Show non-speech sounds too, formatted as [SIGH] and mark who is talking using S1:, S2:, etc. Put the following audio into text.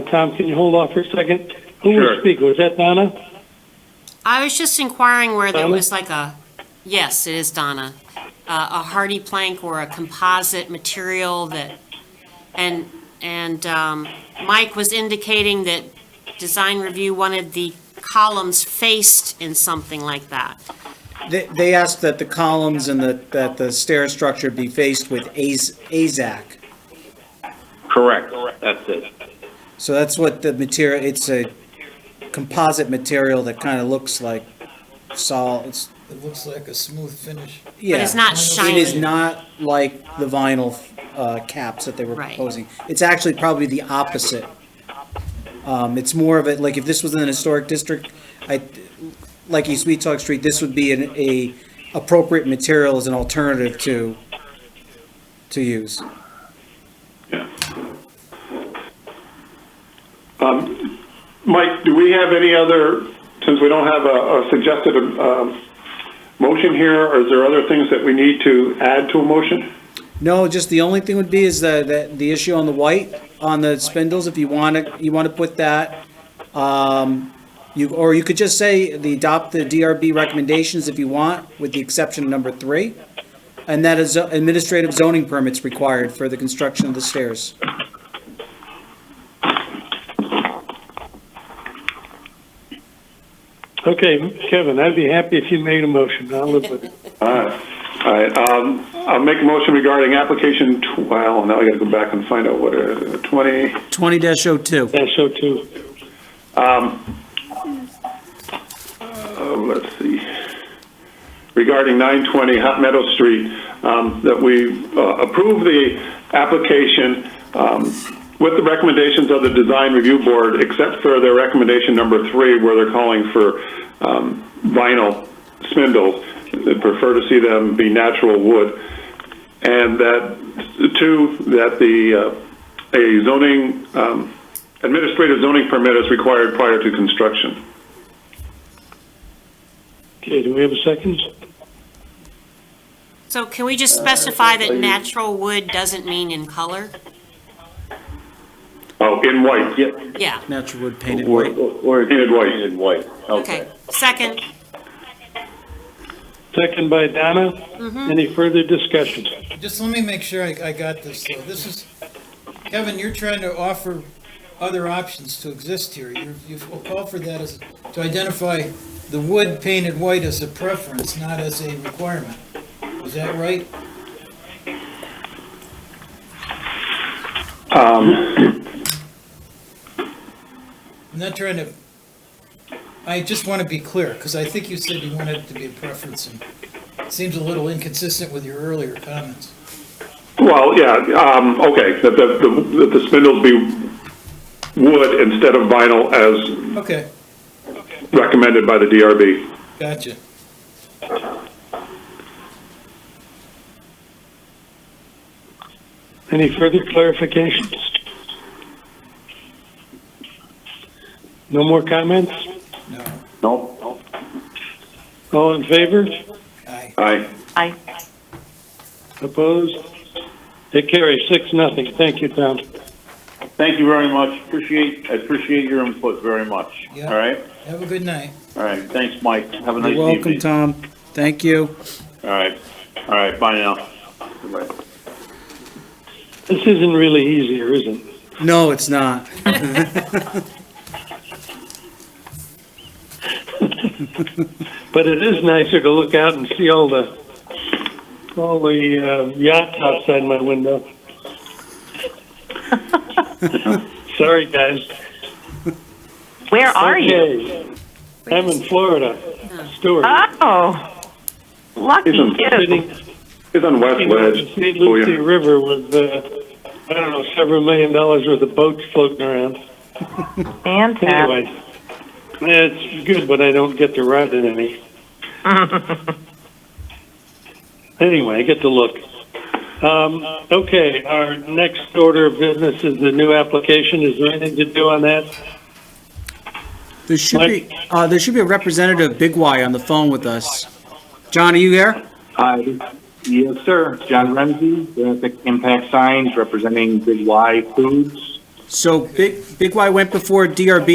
S1: Tom, can you hold off for a second? Who
S2: Sure.
S1: was speaking? Was that Donna?
S3: I was just inquiring where there
S1: Donna?
S3: was like a, yes, it is Donna, uh, a hardy plank or a composite material that, and, and um, Mike was indicating that design review wanted the columns faced in something like that.
S4: They, they asked that the columns and the, that the stair structure be faced with AZ AZAC.
S2: Correct, that's it.
S4: So that's what the material, it's a composite material that kind of looks like sol, it's,
S5: It looks like a smooth finish.
S4: yeah.
S3: it's not
S4: It is
S3: shiny.
S4: not like the vinyl, uh, caps that they were
S3: Right.
S4: proposing. It's actually probably the opposite. Um, it's more of it, like if this was in an historic district, I, like East Sweetock Street, this would be an, a appropriate material as an alternative to, to use.
S6: Um, Mike, do we have any other, since we don't have a a suggested um, motion here, or is there other things that we need to add to a motion?
S4: No, just the only thing would be is the, the, the issue on the white, on the spindles, if you want to, you want to put that, um, you, or you could just say the adopt the DRB recommendations if you want, with the exception of number three. And that is uh, administrative zoning permits required for the construction of the stairs.
S1: Okay, Kevin, I'd be happy if you made a motion. I'll live with it.
S6: All right, Uh, all right, um, I'll make a motion regarding application, tw- well, now I gotta go back and find out what, uh, 20,
S4: Twenty dash oh two.
S1: That's so too.
S6: oh, let's see, regarding 920 Hot Meadow Street, um, that we uh, approve the application um, with the recommendations of the Design Review Board, except for their recommendation number three, where they're calling for um, vinyl spindles. They prefer to see them be natural wood. And that, two, that the, uh, a zoning, um, administrative zoning permit is required prior to construction.
S1: Okay, do we have a second?
S3: So can we just specify that natural wood doesn't mean in color?
S6: Oh, in white.
S2: Yep.
S3: Yeah,
S4: Natural wood painted
S2: Or,
S4: white.
S2: or.
S6: Painted white.
S2: Painted white, okay.
S3: okay. Second,
S1: Second by Donna. Any further discussion?
S5: Just let me make sure I, I got this. though. This is, Kevin, you're trying to offer other options to exist here. You- You've called for that as, to identify the wood painted white as a preference, not as a requirement. Is that right? I'm not trying to, I just want to be clear, because I think you said you wanted it to be a preference, and it seems a little inconsistent with your earlier comments.
S6: Well, yeah, um, okay, that the, the- that the spindles be wood instead of vinyl as
S5: Okay,
S6: recommended by the DRB.
S5: gotcha.
S1: Any further clarifications? No more comments?
S5: No,
S2: No,
S1: All in favor?
S5: aye.
S6: Aye.
S7: Aye.
S1: Opposed? It carries six, nothing. Thank you, Tom.
S2: thank you very much, appreciate, I appreciate your input very much, all
S5: Yeah.
S2: right?
S5: Have a good night.
S2: All right, thanks, Mike, have a nice
S4: You're
S2: evening.
S4: welcome, Tom. Thank you.
S2: All right, all right, bye now.
S1: This isn't really easier, is it?
S4: No, it's not.
S1: But it is nicer to look out and see all the, all the uh, yachts outside my
S7: [LAUGHS]
S1: window. Sorry, guys.
S7: Where are you?
S1: Okay. I'm in Florida, Stuart.
S7: Oh, lucky
S6: Isn't-
S7: you.
S1: Sitting
S6: It's on West
S1: sitting on the
S6: Ledge.
S1: St.
S6: Oh,
S1: Lucie
S6: yeah.
S1: River with, uh, I don't know, several million dollars worth of boats floating around.
S7: Fantastic.
S1: Anyway, it's good, but I don't get to ride in any. Anyway, I get to look. Um, okay, our next order of business is the new application. Is there anything to do on that?
S4: There should be, uh, there should be a representative of Big Y on the phone with us. John, are you here?
S8: Hi, yes, sir. John Ramsey, with Impact Signs, representing Big Y Foods.
S4: So Big, Big Y went before DRB